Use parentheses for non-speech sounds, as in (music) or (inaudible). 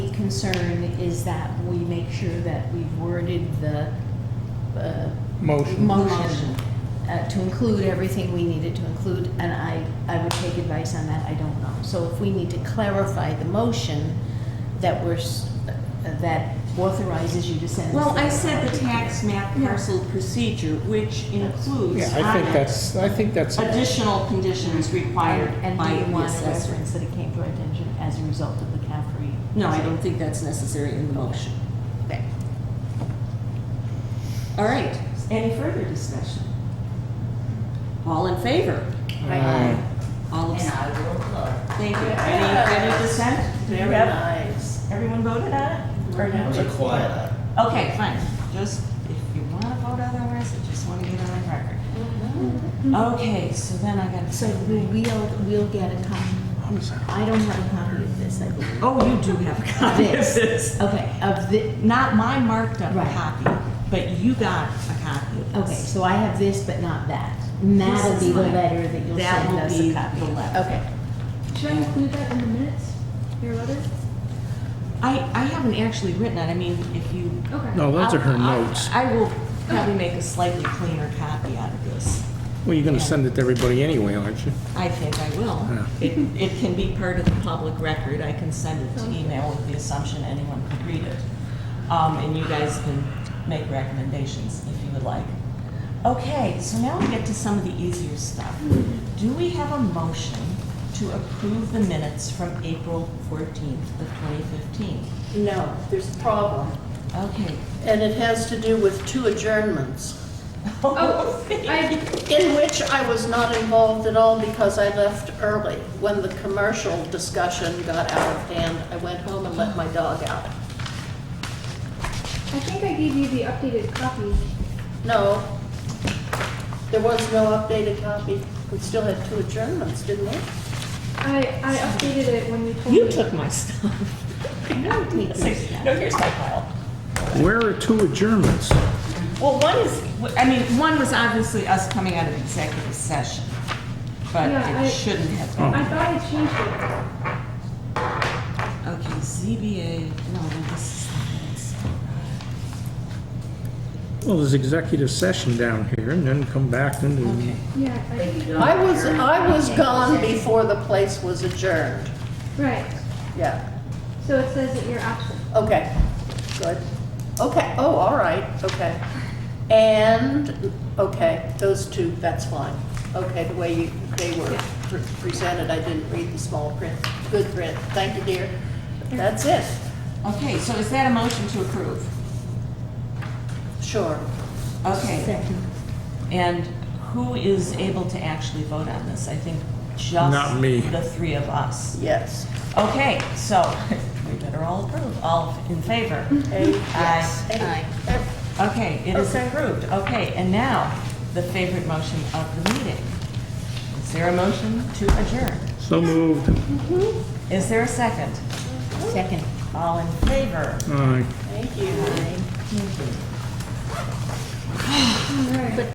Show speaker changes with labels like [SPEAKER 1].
[SPEAKER 1] concern is that we make sure that we've worded the uh,
[SPEAKER 2] Motion.
[SPEAKER 1] motion uh, to include everything we needed to include, and I, I would take advice on that, I don't know. So if we need to clarify the motion that we're, s- uh, that authorizes you to send.
[SPEAKER 3] Well, I said the tax map parcel procedure, which
[SPEAKER 2] Yeah,
[SPEAKER 3] includes
[SPEAKER 2] I think that's, I think that's,
[SPEAKER 3] additional conditions required
[SPEAKER 1] And
[SPEAKER 3] by
[SPEAKER 1] do you
[SPEAKER 3] the
[SPEAKER 1] want to
[SPEAKER 3] assessor.
[SPEAKER 1] reference that it came to our attention as a result of the CAFRE?
[SPEAKER 3] No, I don't think that's necessary in the motion.
[SPEAKER 1] Okay.
[SPEAKER 3] All right, any further discussion? All in favor?
[SPEAKER 2] Aye.
[SPEAKER 3] All
[SPEAKER 4] And
[SPEAKER 3] abs-
[SPEAKER 4] I will vote.
[SPEAKER 3] Thank you. Any, any dissent? Did
[SPEAKER 4] Very
[SPEAKER 3] everyone-
[SPEAKER 4] nice.
[SPEAKER 3] Everyone voted on it? Or
[SPEAKER 4] It
[SPEAKER 3] no?
[SPEAKER 4] was a quiet act.
[SPEAKER 3] Okay, fine. Just, if you want to vote otherwise, I just want to get on the record. Okay, so then I got to
[SPEAKER 1] Mm-hmm. So
[SPEAKER 3] say.
[SPEAKER 1] we- we'll, we'll get a copy. I don't have a copy of this, I believe.
[SPEAKER 3] Oh, you do have a copy of
[SPEAKER 1] This.
[SPEAKER 3] this.
[SPEAKER 1] Okay, of the,
[SPEAKER 3] Not my marked up
[SPEAKER 1] Right.
[SPEAKER 3] copy, but you got a copy of
[SPEAKER 1] okay,
[SPEAKER 3] this.
[SPEAKER 1] so I have this, but not that. And that'll
[SPEAKER 3] This is
[SPEAKER 1] be the
[SPEAKER 3] mine.
[SPEAKER 1] letter that you'll
[SPEAKER 3] That
[SPEAKER 1] send
[SPEAKER 3] will
[SPEAKER 1] us
[SPEAKER 3] be
[SPEAKER 1] a copy.
[SPEAKER 3] the letter.
[SPEAKER 1] Okay.
[SPEAKER 5] Should I include that in the minutes, your letter?
[SPEAKER 3] I, I haven't actually written it. I mean, if you.
[SPEAKER 5] Okay.
[SPEAKER 2] no, Oh, those are her
[SPEAKER 3] I'll- I'll-
[SPEAKER 2] notes.
[SPEAKER 3] I will probably make a slightly cleaner copy out of this.
[SPEAKER 2] Well, you're going to send it to everybody anyway, aren't you?
[SPEAKER 3] I think I will.
[SPEAKER 2] Yeah.
[SPEAKER 3] It, it can be part of the public record. I can send it to email with the assumption anyone could read it. Um, and you guys can make recommendations if you would like. Okay, so now we get to some of the easier stuff. Do we have a motion to approve the minutes from April fourteenth of twenty fifteen?
[SPEAKER 6] No, there's a problem,
[SPEAKER 3] Okay.
[SPEAKER 6] and it has to do with two adjournments,
[SPEAKER 3] (laughs)
[SPEAKER 5] Oh, I,
[SPEAKER 6] in which I was not involved at all because I left early. When the commercial discussion got out of hand, I went home and let my dog out.
[SPEAKER 5] I think I gave you the updated copy.
[SPEAKER 6] No, there was no updated copy. We still had two adjournments, didn't we?
[SPEAKER 5] I, I updated it when you told me.
[SPEAKER 3] You took my stuff.
[SPEAKER 1] (laughs)
[SPEAKER 3] No, (laughs) here's my file.
[SPEAKER 2] Where are two adjournments?
[SPEAKER 3] Well, one is, I mean, one was obviously us coming out of executive session, but
[SPEAKER 5] Yeah, I-
[SPEAKER 3] it shouldn't have been.
[SPEAKER 5] I thought I changed it.
[SPEAKER 2] Oh.
[SPEAKER 3] Okay, ZBA, no, no, this is,
[SPEAKER 2] Well, there's executive session down here, and then come back and
[SPEAKER 3] okay.
[SPEAKER 2] do...
[SPEAKER 5] Yeah, I,
[SPEAKER 6] I was, I was gone before the place was adjourned.
[SPEAKER 5] right.
[SPEAKER 6] Yeah,
[SPEAKER 5] So it says that you're absent.
[SPEAKER 6] okay, good. Okay, oh, all right, okay. And, okay, those two, that's fine. Okay, the way you, they were pre- presented, I didn't read the small print. Good print, thank you, dear. That's it,
[SPEAKER 3] Okay, so is that a motion to approve?
[SPEAKER 6] sure.
[SPEAKER 3] Okay, and who is able to actually vote on this? I think just
[SPEAKER 2] Not me.
[SPEAKER 3] the three of us.
[SPEAKER 6] Yes.
[SPEAKER 3] Okay, so (laughs) we better all approve, all in favor?
[SPEAKER 6] Hey,
[SPEAKER 3] Aye.
[SPEAKER 6] hey, eh,
[SPEAKER 3] Okay, it is
[SPEAKER 6] Okay.
[SPEAKER 3] approved. Okay, and now, the favorite motion of the meeting. Is there a motion to adjourn?
[SPEAKER 2] So moved.
[SPEAKER 3] Is there a second?
[SPEAKER 1] Second.
[SPEAKER 3] All in favor?
[SPEAKER 2] Aye.
[SPEAKER 6] Thank you.
[SPEAKER 5] All right.